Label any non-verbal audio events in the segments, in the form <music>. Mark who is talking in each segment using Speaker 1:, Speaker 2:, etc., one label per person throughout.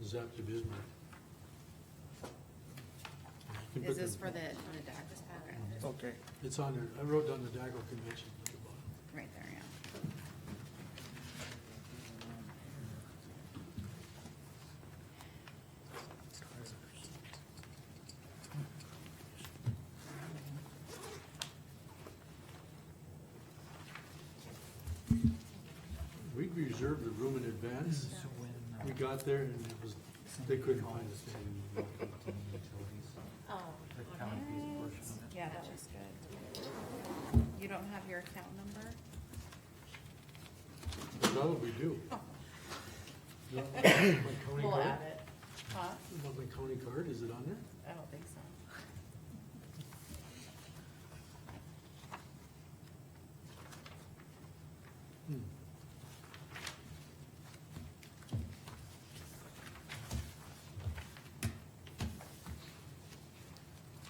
Speaker 1: Adaptive, isn't it? You can
Speaker 2: Is
Speaker 1: put
Speaker 2: this
Speaker 1: the-
Speaker 2: for the, on the dock? Okay,
Speaker 3: Okay.
Speaker 1: It's on there, I wrote down the DACO convention at the bottom.
Speaker 2: Right there, yeah.
Speaker 1: We reserved the room in advance, we got there and it was, they couldn't find us.
Speaker 2: Oh, Yeah, that was good. You don't have your account number?
Speaker 1: That'll we
Speaker 2: <laughs>
Speaker 1: do.
Speaker 2: <coughs>
Speaker 1: My county
Speaker 2: We'll
Speaker 1: card,
Speaker 2: add it. Huh?
Speaker 1: Not my county card, is it on there?
Speaker 2: I don't think so.
Speaker 1: Hmm.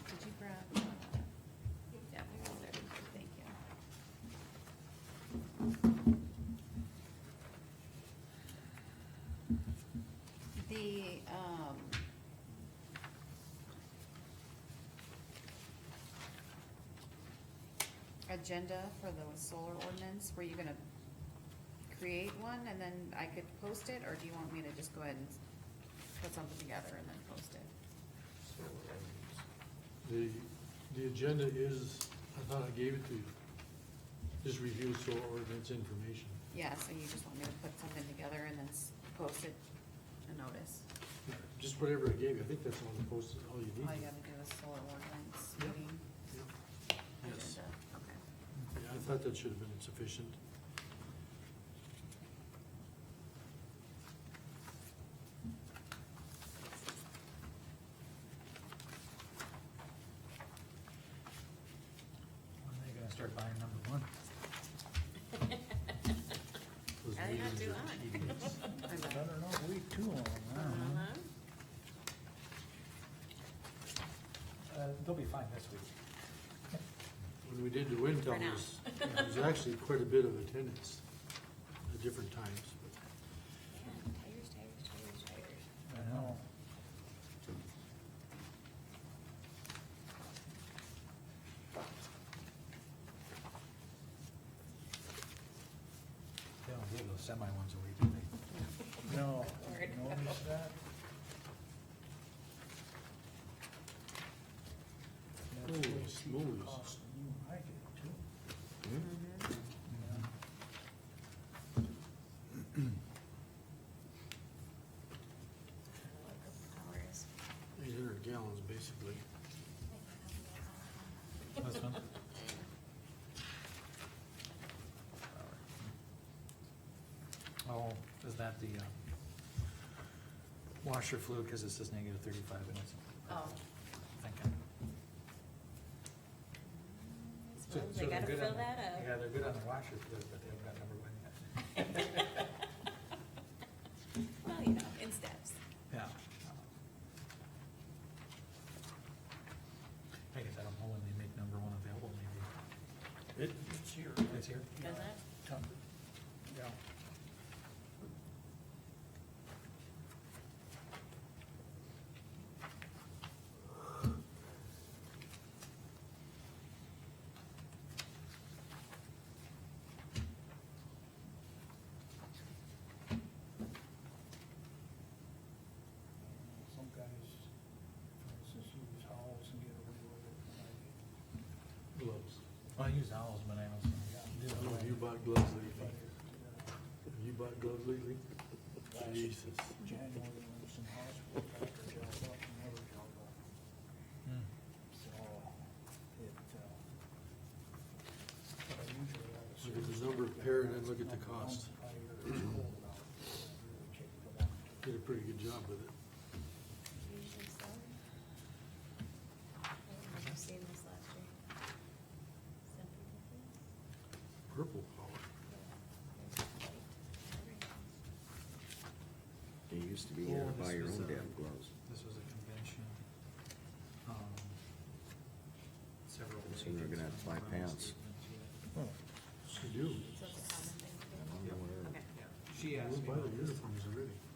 Speaker 2: Did you grab? uh, Yeah, there, thank you. The, um. Agenda for the solar ordinance, were you gonna create one and then I could post it, or do you want me to just go ahead and put something together and then post it?
Speaker 1: The, the agenda is, I thought I gave it to you, just review solar ordinance information.
Speaker 2: Yeah, so you just want me to put something together and then s- post it, a notice?
Speaker 1: Just whatever I gave you, I think that's all the posts, all you
Speaker 2: All you
Speaker 1: need.
Speaker 2: gotta do is solar ordinance
Speaker 1: Yep.
Speaker 2: meeting
Speaker 1: Yes,
Speaker 2: agenda, okay.
Speaker 1: yeah, I thought that should have been sufficient.
Speaker 3: When are they gonna start buying number one?
Speaker 1: Those
Speaker 4: I didn't have
Speaker 1: meetings
Speaker 4: to
Speaker 1: are
Speaker 2: I bet.
Speaker 1: tedious.
Speaker 3: I
Speaker 4: <laughs> lie.
Speaker 3: don't know, we too long, I don't know.
Speaker 4: Uh-huh.
Speaker 3: Uh, they'll be fine this week.
Speaker 1: When we did the wind
Speaker 4: For now.
Speaker 1: towers, there was actually quite a bit of attendance at different times. but
Speaker 4: Man, tires, tires, tires, tires.
Speaker 3: I know.
Speaker 5: They don't give those semi ones away, do they?
Speaker 3: No,
Speaker 4: Word.
Speaker 3: notice that? That's
Speaker 1: Holy
Speaker 3: what she
Speaker 1: smokes.
Speaker 3: cost you, I did too.
Speaker 4: Mm-hmm.
Speaker 3: Yeah.
Speaker 4: Like hours.
Speaker 1: Eight hundred gallons, basically.
Speaker 5: This one? Oh, is that the uh, washer fluid, because it says negative thirty-five and it's.
Speaker 4: Oh.
Speaker 5: Thinking.
Speaker 4: So they
Speaker 5: they're
Speaker 4: gotta
Speaker 5: good
Speaker 4: fill
Speaker 5: on the-
Speaker 4: that up.
Speaker 5: Yeah, they're good on the washer fluid, but they haven't got number one yet.
Speaker 4: <laughs> Well, you know, in steps.
Speaker 5: Yeah. I guess I don't know when they make number one available, maybe.
Speaker 1: It, it's here.
Speaker 5: It's here?
Speaker 4: Does that?
Speaker 3: Tough. Yeah. Some guys, for instance, use howls and get away with it. but I didn't.
Speaker 1: Gloves.
Speaker 5: Well, I use owls, but I don't.
Speaker 1: I
Speaker 5: do
Speaker 1: don't know
Speaker 5: it.
Speaker 1: if you bought gloves
Speaker 3: But
Speaker 1: lately.
Speaker 3: it, uh,
Speaker 1: Have you bought gloves lately? Jesus.
Speaker 3: January, there was some hospital doctor jobs up and never held up,
Speaker 5: Hmm.
Speaker 3: so it, uh. but I usually have a
Speaker 1: Look at the
Speaker 3: service
Speaker 1: number
Speaker 3: dog
Speaker 1: paired and
Speaker 3: that
Speaker 1: look at the
Speaker 3: runs around
Speaker 1: cost.
Speaker 3: the fire, it's cold out, so I really check for that.
Speaker 1: Did a pretty good job with it.
Speaker 4: Usually so. I remember seeing this last year. Some people do.
Speaker 1: Purple power.
Speaker 4: Yeah. There's
Speaker 6: It used to be you had to
Speaker 5: Oh,
Speaker 6: buy
Speaker 5: this
Speaker 6: your
Speaker 5: was,
Speaker 6: own
Speaker 5: uh,
Speaker 6: damn gloves.
Speaker 5: This was a convention. um, Several.
Speaker 6: So you're gonna have to buy pants.
Speaker 1: You do.
Speaker 4: a common thing.
Speaker 6: I don't know where-
Speaker 4: Okay.
Speaker 5: Yeah, She
Speaker 1: Yeah,
Speaker 5: asked
Speaker 1: we
Speaker 5: me.
Speaker 1: buy
Speaker 5: about
Speaker 1: the
Speaker 5: this.
Speaker 1: uniforms already.
Speaker 5: Uh,